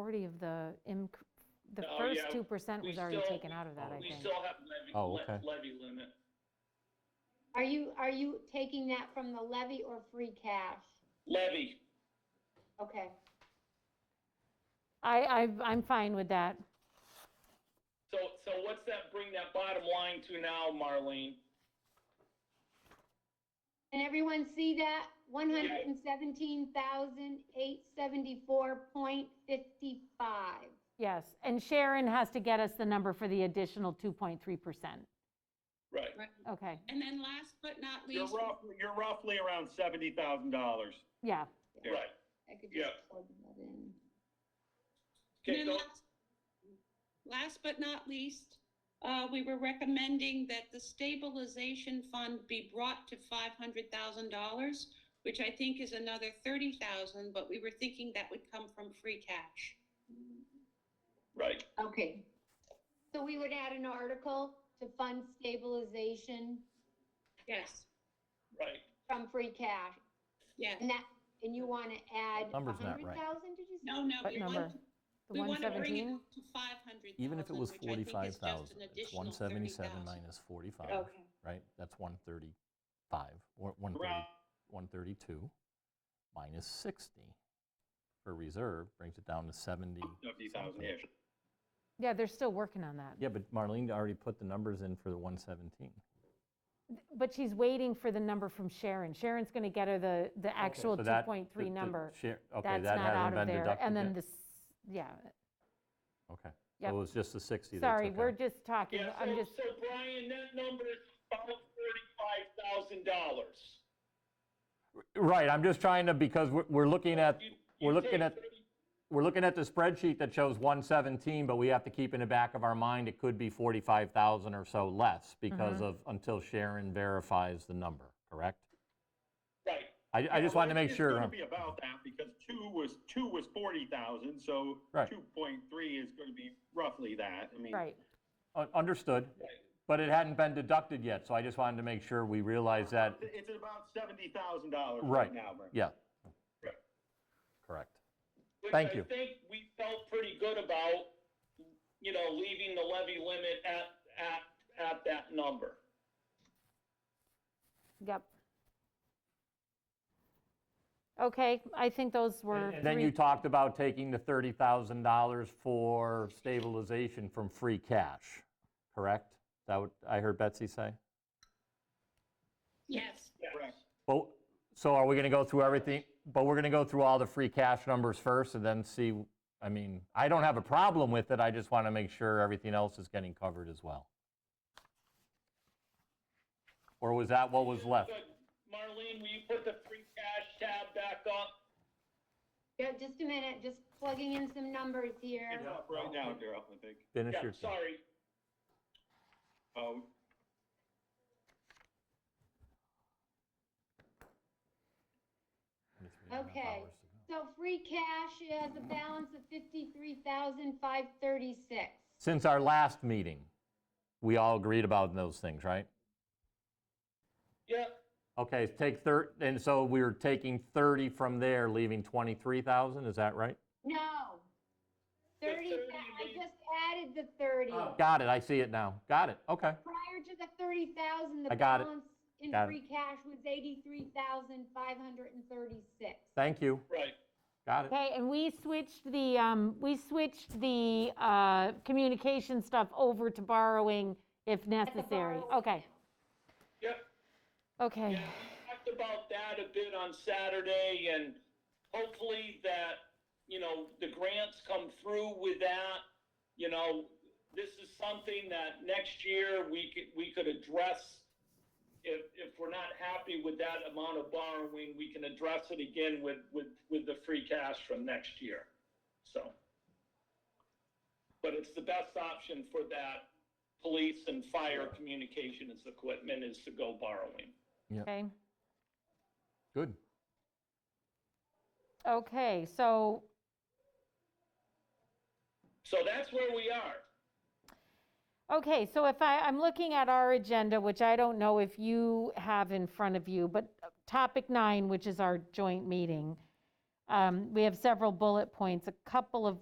majority of the, inc- the No, first yeah, 2% we was already still- taken out of that, I Oh, We think. still have levy, Oh, le- okay. levy limit. Are you, are you taking that from the levy or free cash? Levy, Okay. I, I- I'm fine with that. so, so what's that, bring that bottom line to now, Marlene? Can everyone see that? One hundred and seventeen thousand, eight seventy-four point fifty-five. Yes, and Sharon has to get us the number for the additional 2.3%. Right. Right. Okay, And then last but not You're least, roughly, you're roughly around seventy thousand dollars. yeah. Right. I could just Yeah. plug that in. and Okay, then so, last- last but not least, uh, we were recommending that the stabilization fund be brought to five hundred thousand dollars, which I think is another thirty thousand, but we were thinking that would come from free cash. right, Okay. So we would add an article to fund stabilization Yes, right. from free cash. yeah. And that, and you want to add a Number's hundred not right. thousand, did you say? No, no, What we want, number? The we want to bring it 117? up to five hundred thousand. Even if it was forty-five thousand, it's one seventy-seven minus. minus forty-five, Okay. right? That's one thirty-five, or one thirty, Around, one thirty-two, minus sixty for reserve, brings it down to seventy. fifty thousand-ish. Yeah, they're still working on that. Yeah, but Marlene already put the numbers in for the one seventeen. But she's waiting for the number from Sharon. Sharon's going to get her the, the actual 2.3 number. Okay, That's that not out hasn't of been there. deducted And then yet? this, yeah, Okay, so Yep. it was just the sixty they sorry, took we're out. just talking, Yeah, I'm so, just, so Brian, that number is about thirty-five thousand dollars. Right, I'm just trying to, because we're, we're looking at, we're looking at, we're looking at the spreadsheet that shows 117, but we have to keep in the back of our mind, it could be 45,000 or so less because of, until Sharon verifies the number, correct? Right, I, I just wanted to make It's sure. gonna be about that, because two was, two was forty thousand, so Right. two point three is gonna be roughly that, I mean. right. Un- Understood, but it hadn't been deducted yet, so I just wanted to make sure we realize that, It's at about seventy thousand dollars Right, right now, Brent. yeah. Right. Correct. which Thank I you. think we felt pretty good about, you know, leaving the levy limit at, at, at that number. Yep. Okay, I think those were And then you three, talked about taking the $30,000 for stabilization from free cash, correct? Is that what I heard Betsy say? Yes, Yes. But, so are we going to go through everything, but we're going to go through all the free cash numbers first and then see, I mean, I don't have a problem with it, I just want to make sure everything else is getting covered as well. Or was that what was left? Good. Marlene, will you put the free cash tab back up? Yeah, just a minute, just plugging in some numbers here. It's up right now, Daryl, I think. Finish Yeah, your, sorry. Oh, Okay. So free cash has a balance of fifty-three thousand, five thirty-six. since our last meeting, we all agreed about those things, right? Yeah, Okay, take 30, and so we were taking 30 from there, leaving 23,000, is that right? No. Thirty, thirty I we- just added the thirty. Got it, I see it now. Got it, okay. Prior to the thirty thousand, the I got it. balance in Got it. free cash was eighty-three thousand, five hundred and thirty-six. Thank you, right. got it. okay, and we switched the, um, we switched the uh, communication stuff over to borrowing if necessary. Okay, Yep. okay. Yeah, we talked about that a bit on Saturday, and hopefully that, you know, the grants come through with that. You know, this is something that next year we could, we could address. If, if we're not happy with that amount of borrowing, we can address it again with, with, with the free cash from next year, so. But it's the best option for that police and fire communications equipment is to go borrowing. Okay, Good. okay, so So that's where we are. Okay, so if I, I'm looking at our agenda, which I don't know if you have in front of you, but uh, topic nine, which is our joint meeting, um, we have several bullet points, a couple of